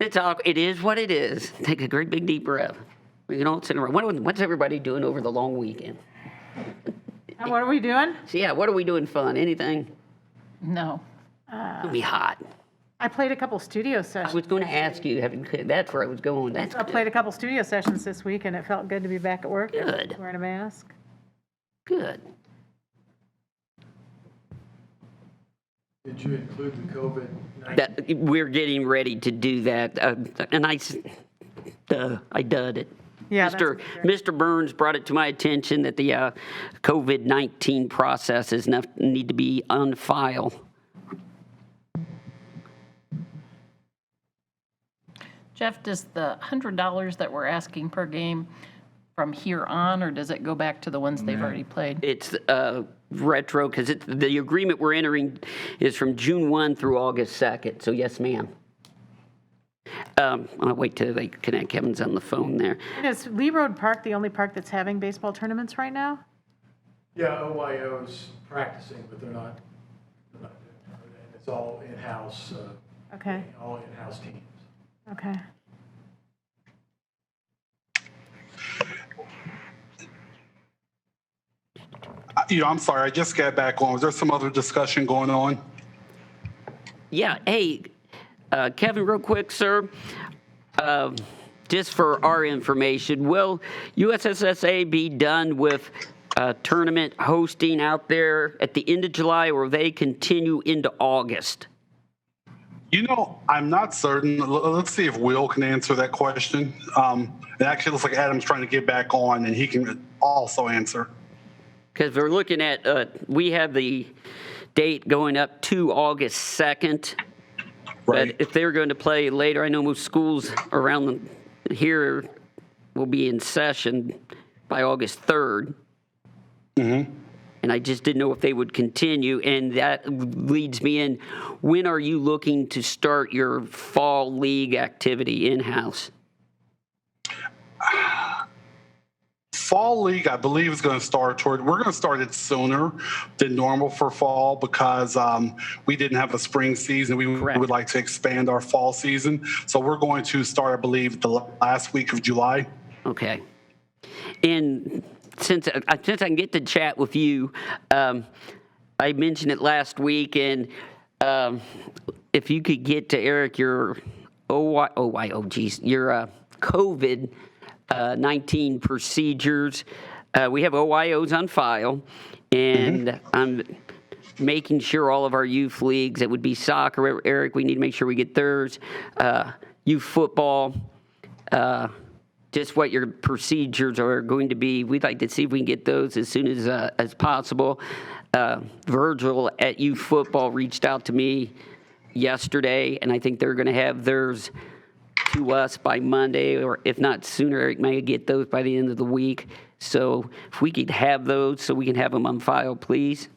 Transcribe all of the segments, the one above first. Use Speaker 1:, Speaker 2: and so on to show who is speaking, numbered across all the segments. Speaker 1: It's all, it is what it is. Take a great big deep breath. We don't sit around. What, what's everybody doing over the long weekend?
Speaker 2: And what are we doing?
Speaker 1: So yeah, what are we doing fun? Anything?
Speaker 3: No.
Speaker 1: It'll be hot.
Speaker 2: I played a couple studio
Speaker 1: I
Speaker 2: sessions.
Speaker 1: was going to ask you, having- that's where I was going. That's
Speaker 2: I played a couple studio sessions this week, and it felt good to be back at work. and
Speaker 1: Good.
Speaker 2: Wearing a mask.
Speaker 1: good.
Speaker 4: Did you include the COVID-19?
Speaker 1: That, we're getting ready to do that. Uh, and I, s- duh, I dud it.
Speaker 2: Yeah, that's
Speaker 1: Mr. Mr. Burns brought it to my attention that the uh, COVID 19 processes nef- need to be on file.
Speaker 3: Jeff, does the $100 that we're asking per game from here on, or does it go back to the ones they've already played?
Speaker 1: It's uh, retro because the agreement we're entering is from June 1 through August 2nd. So, yes, ma'am. Um, I'll wait till they connect. Kevin's on the phone there.
Speaker 2: And is Lee Road Park the only park that's having baseball tournaments right now?
Speaker 4: Yeah, OYO's practicing, but they're not, they're not doing it. And It's all in-house, uh,
Speaker 2: Okay,
Speaker 4: all in-house teams.
Speaker 2: okay.
Speaker 5: You know, I'm sorry, I just got back on. Was there some other discussion going on?
Speaker 1: Yeah, hey, uh, Kevin, real quick, sir, Um just for our information, will USSSA be done with uh, tournament hosting out there at the end of July, or will they continue into August?
Speaker 5: You know, I'm not certain. L- Let's see if Will can answer that question. Um, it actually looks like Adam's trying to get back on, and he can also answer.
Speaker 1: Because we're looking at, uh, we have the date going up to August 2nd. But
Speaker 5: Right.
Speaker 1: if they're going to play later, I know most schools around the- here will be in session by August 3rd. And I just didn't know if they would continue. And that leads me in, when are you looking to start your fall league activity in-house?
Speaker 5: fall league i believe is going to start toward we're going to start it sooner than normal for fall because um, we didn't have a spring season we
Speaker 1: Correct.
Speaker 5: would like to expand our fall season so we're going to start i believe the la- last week of july
Speaker 1: Okay. And since I, since I can get to chat with you, um, I mentioned it last week, and um, if you could get to Eric your OY, OY, oh geez, your uh, COVID uh, 19 procedures, uh, we have OYOs on file, and I'm making sure all of our youth leagues, it would be soccer, Eric, we need to make sure we get theirs, uh, youth football, uh, just what your procedures are going to be. We'd like to see if we can get those as soon as, uh, as possible. Uh, Virgil at youth football reached out to me yesterday, and I think they're going to have theirs to us by Monday, or if not sooner, Eric may get those by the end of the week. So if we could have those, so we can have them on file, please.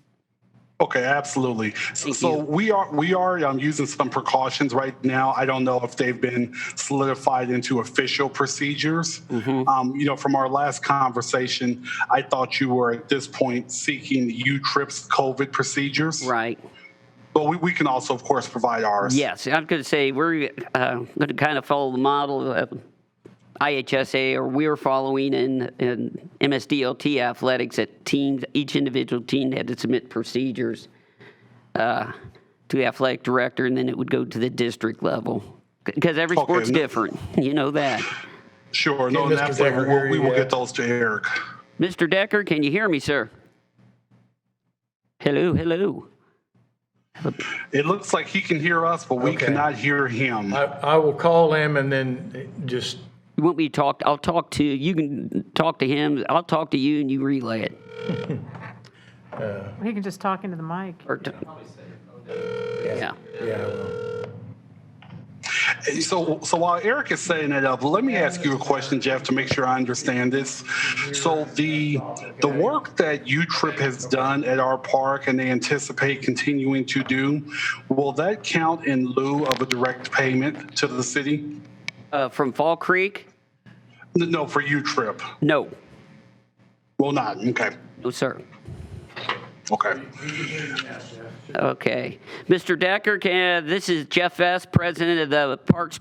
Speaker 5: Okay, absolutely. So, so we are we are um, using some precautions right now. I don't know if they've been solidified into official procedures. Um, you know, from our last conversation, I thought you were at this point seeking the UTRIPS COVID procedures,
Speaker 1: Right.
Speaker 5: but we, we can also, of course, provide ours.
Speaker 1: Yes, I'm going to say we're uh, going to kind of follow the model of IHSA, or we're following in, in MSDLT athletics that teams, each individual team had to submit procedures uh, to the athletic director, and then it would go to the district level because every
Speaker 5: Okay,
Speaker 1: sport's
Speaker 5: no-
Speaker 1: different. You know that.
Speaker 5: Sure. No,
Speaker 4: Mr.
Speaker 5: absolutely.
Speaker 4: Decker,
Speaker 5: We'll- we will
Speaker 4: yeah.
Speaker 5: get those to Eric.
Speaker 1: Mr. Decker, can you hear me, sir? Hello, hello.
Speaker 5: It looks like he can hear us, but we
Speaker 4: Okay.
Speaker 5: cannot hear him.
Speaker 4: I, I will call him and then just,
Speaker 1: You want me to talk? I'll talk to you. Can talk to him. I'll talk to you, and you relay it.
Speaker 2: He can just talk into the mic.
Speaker 1: Or t- yeah.
Speaker 4: yeah, well,
Speaker 5: So, so while Eric is setting that up, let me ask you a question, Jeff, to make sure I understand this. So the the work that UTRIP has done at our park and they anticipate continuing to do, will that count in lieu of a direct payment to the city?
Speaker 1: Uh, from Fall Creek?
Speaker 5: N- No, for UTRIP,
Speaker 1: No,
Speaker 5: will not. Okay,
Speaker 1: no, sir.
Speaker 5: okay.
Speaker 1: Okay. Mr. Decker, can, this is Jeff S., President of the Parks